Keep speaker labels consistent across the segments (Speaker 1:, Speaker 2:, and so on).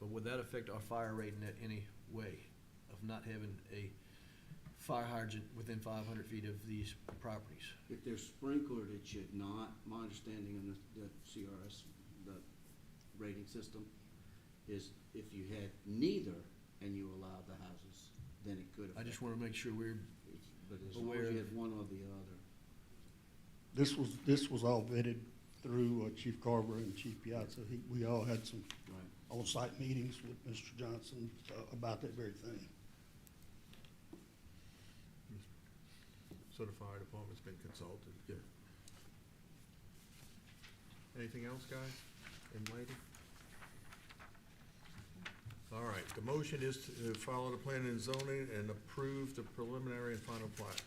Speaker 1: would that affect our fire rating at any way of not having a fire hydrant within five hundred feet of these properties?
Speaker 2: If they're sprinklered, it should not. My understanding on the, the CRS, the rating system, is if you had neither and you allowed the houses, then it could
Speaker 1: I
Speaker 2: affect.
Speaker 1: just wanna make sure we're,
Speaker 2: it's- But as long as
Speaker 1: aware
Speaker 2: you
Speaker 1: of-
Speaker 2: had one or the other.
Speaker 3: This was, this was all vetted through uh, Chief Carver and Chief Piazza. He, we all had some
Speaker 2: Right.
Speaker 3: on-site meetings with Mr. Johnson uh, about that very thing.
Speaker 4: So the fire department's been consulted?
Speaker 1: Yeah.
Speaker 4: Anything else, guys and lady? All right, the motion is to uh, follow the plan and zoning and approve the preliminary and final plat.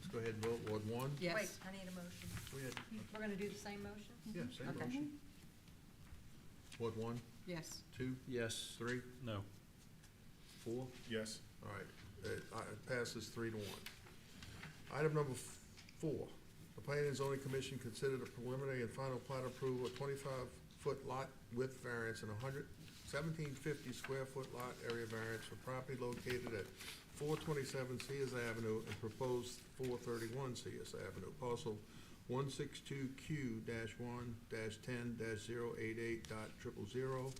Speaker 4: Let's go ahead and vote, Ward one?
Speaker 5: Yes.
Speaker 6: Wait, I need a motion.
Speaker 4: We had,
Speaker 6: We're gonna do the same motion?
Speaker 4: yeah, same
Speaker 6: Okay.
Speaker 4: motion. Ward one,
Speaker 5: Yes.
Speaker 4: two,
Speaker 1: yes,
Speaker 4: three,
Speaker 7: No.
Speaker 4: four?
Speaker 7: Yes.
Speaker 4: All right, it uh, it passes three to one. Item number f- four, the Planning and Zoning Commission considered a preliminary and final plat approval of twenty-five foot lot width variance and a hundred seventeen fifty square foot lot area variance for property located at four twenty-seven Sears Avenue and proposed four thirty-one Sears Avenue, parcel one six two Q one ten 8800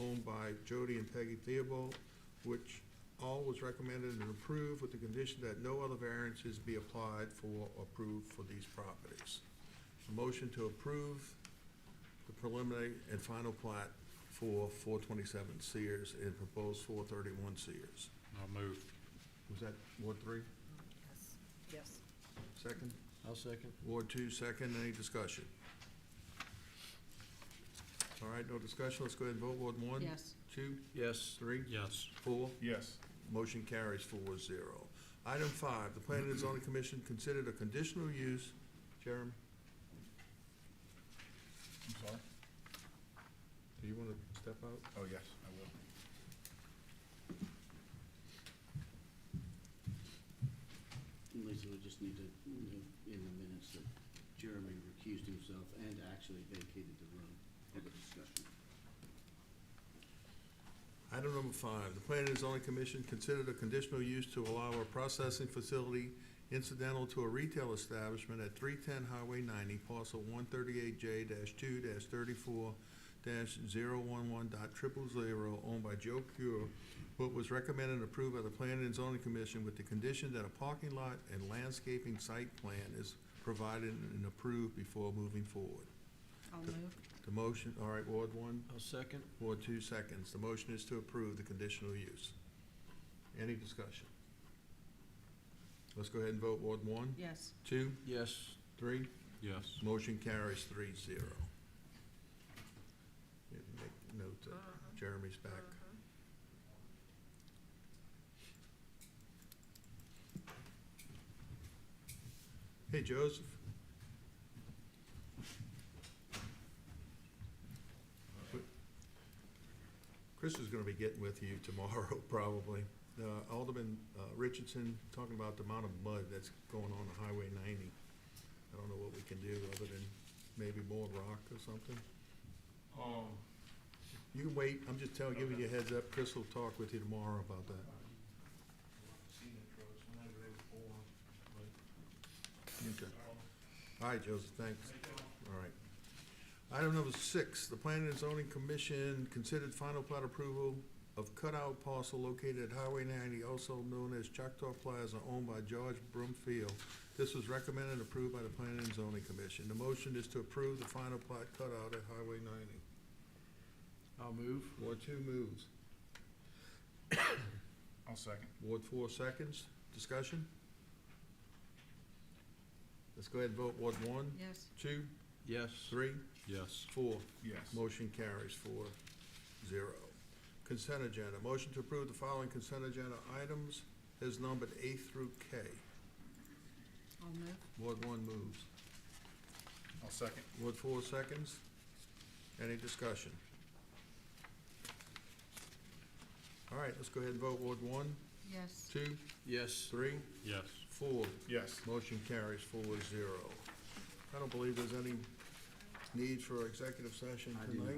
Speaker 4: owned by Jody and Peggy Theobald, which all was recommended and approved with the condition that no other variances be applied for or approved for these properties. A motion to approve the preliminary and final plat for four twenty-seven Sears and proposed four thirty-one Sears.
Speaker 7: I'll move.
Speaker 4: Was that Ward three,
Speaker 6: Yes. Yes.
Speaker 4: second?
Speaker 1: I'll second.
Speaker 4: Ward two, second, any discussion? All right, no discussion, let's go ahead and vote, Ward one?
Speaker 5: Yes.
Speaker 4: Two,
Speaker 1: Yes,
Speaker 4: three,
Speaker 7: Yes.
Speaker 4: four?
Speaker 7: Yes.
Speaker 4: Motion carries four zero. Item five, the Planning and Zoning Commission considered a conditional use, Jeremy,
Speaker 7: I'm sorry?
Speaker 4: do you wanna step out?
Speaker 7: Oh, yes, I will.
Speaker 2: And Lisa, we just need to, note in the minutes, that Jeremy recused himself and actually vacated the room for the discussion.
Speaker 4: Item number five, the Planning and Zoning Commission considered a conditional use to allow a processing facility incidental to a retail establishment at three ten Highway ninety, parcel one thirty-eight J two thirty-four 111000 owned by Joe Cure, what was recommended and approved by the Planning and Zoning Commission with the condition that a parking lot and landscaping site plan is provided and approved before moving forward.
Speaker 5: I'll move.
Speaker 4: The motion, all right, Ward one?
Speaker 1: I'll second,
Speaker 4: Ward two seconds. The motion is to approve the conditional use. Any discussion? Let's go ahead and vote. Ward one,
Speaker 5: Yes.
Speaker 4: two,
Speaker 1: yes,
Speaker 4: three.
Speaker 7: Yes.
Speaker 4: Motion carries three zero. Yeah, Make note that Jeremy's back. Hey, Joseph. Chris is gonna be getting with you tomorrow, probably. Uh, Alderman uh, Richardson talking about the amount of mud that's going on the Highway ninety. I don't know what we can do other than maybe more rock or something.
Speaker 7: Um,
Speaker 4: You can wait, I'm just telling, giving you a heads up, Chris will talk with you tomorrow about that.
Speaker 7: seen the trucks whenever they were born, but,
Speaker 4: Okay. All right, Joseph, thanks.
Speaker 7: they don't
Speaker 4: All right. Item number six, the Planning and Zoning Commission considered final plat approval of cutout parcel located at Highway ninety, also known as Choctaw Plaza, owned by George Brumfield. This was recommended and approved by the Planning and Zoning Commission. The motion is to approve the final plat cutout at Highway ninety.
Speaker 1: I'll move,
Speaker 4: Ward two moves.
Speaker 7: I'll second.
Speaker 4: Ward four seconds. Discussion? Let's go ahead and vote. Ward one,
Speaker 5: Yes.
Speaker 4: two,
Speaker 1: yes.
Speaker 4: three,
Speaker 7: Yes.
Speaker 4: four.
Speaker 7: Yes.
Speaker 4: Motion carries four zero. Consent agenda. Motion to approve the following consent agenda items is numbered A through K.
Speaker 5: I'll move.
Speaker 4: Ward one moves.
Speaker 7: I'll second.
Speaker 4: Ward four seconds. Any discussion? All right, let's go ahead and vote. Ward one,
Speaker 5: Yes.
Speaker 4: two,
Speaker 1: Yes,
Speaker 4: three,
Speaker 7: Yes.
Speaker 4: four.
Speaker 7: Yes.
Speaker 4: Motion carries four zero. I don't believe there's any need for executive session
Speaker 2: I do
Speaker 4: tonight.